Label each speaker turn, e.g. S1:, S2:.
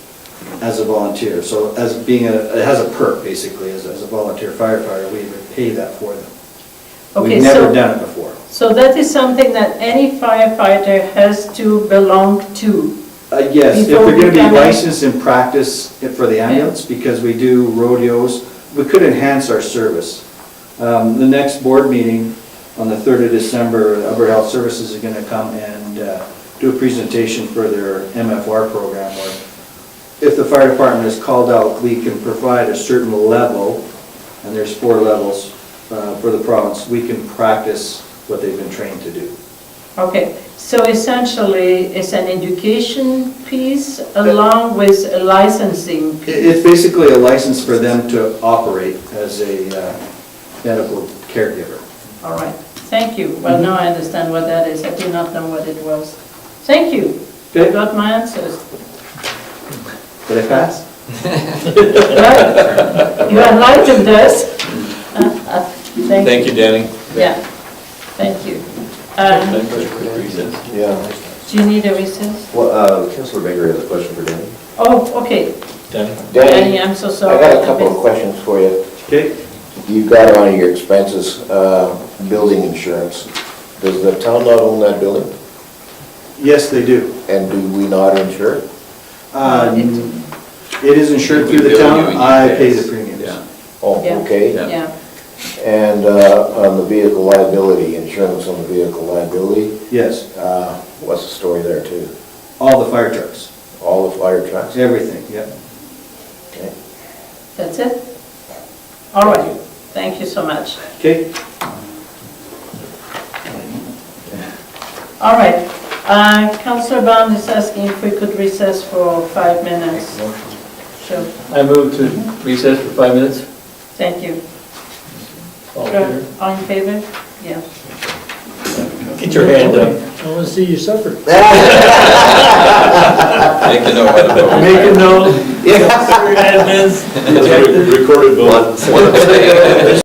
S1: as a volunteer. So as being a, it has a perk, basically, as, as a volunteer firefighter, we would pay that for them.
S2: Okay,
S1: We've never
S2: so-
S1: done it before.
S2: So that is something that any firefighter has to belong to.
S1: Uh, Yes, if
S2: Before
S1: they're
S2: we
S1: going to
S2: come
S1: be
S2: in.
S1: licensed and practice it for the ambulance, because we do rodeos, we could enhance our service. Um, The next board meeting on the 3rd of December, Upper Health Services is going to come and uh, do a presentation for their MFR program, where if the fire department is called out, we can provide a certain level, and there's four levels uh, for the province, we can practice what they've been trained to do.
S2: Okay, so essentially, it's an education piece along with a licensing.
S1: It- It's basically a license for them to operate as a uh, medical caregiver.
S2: All right, thank you.
S3: Mm-hmm.
S2: Well, now I understand what that is. I did not know what it was. Thank you. I
S1: Okay.
S2: got my answers.
S1: Did I pass?
S2: Well, You enlightened us. Uh,
S4: Thank you, Danny.
S2: Yeah, thank you. Um,
S3: Yeah.
S2: Do you need a recess?
S3: Well, uh, Councilor Baker has a question for Danny.
S2: Oh, okay.
S4: Danny?
S2: Danny, I'm so
S3: I
S2: sorry.
S3: got a couple of questions for you.
S1: Okay.
S3: You've got on your expenses, uh, building insurance. Does the town not own that building?
S1: Yes, they do.
S3: And do we not insure it?
S1: Um, It is insured through the town, I pay the premiums.
S4: Yeah.
S3: Oh,
S2: Yeah.
S3: okay.
S2: Yeah,
S3: And uh, on the vehicle liability, insurance on the vehicle liability,
S1: Yes,
S3: uh, what's the story there too?
S1: all the fire trucks,
S3: All the fire trucks?
S1: everything, yeah.
S3: Okay.
S2: that's it? All right, thank you so much.
S1: Okay,
S2: All right, Uh, Councillor Bond is asking if we could recess for five minutes. Sure,
S4: I move to recess for five minutes.
S2: thank you.
S4: All in
S2: Sure.
S4: favor?
S2: All in favor? Yeah.
S4: Get your hand up.
S5: I want to see you suffer.
S6: Make a note how to vote.
S1: make a note.
S4: Admins.
S6: One abstain.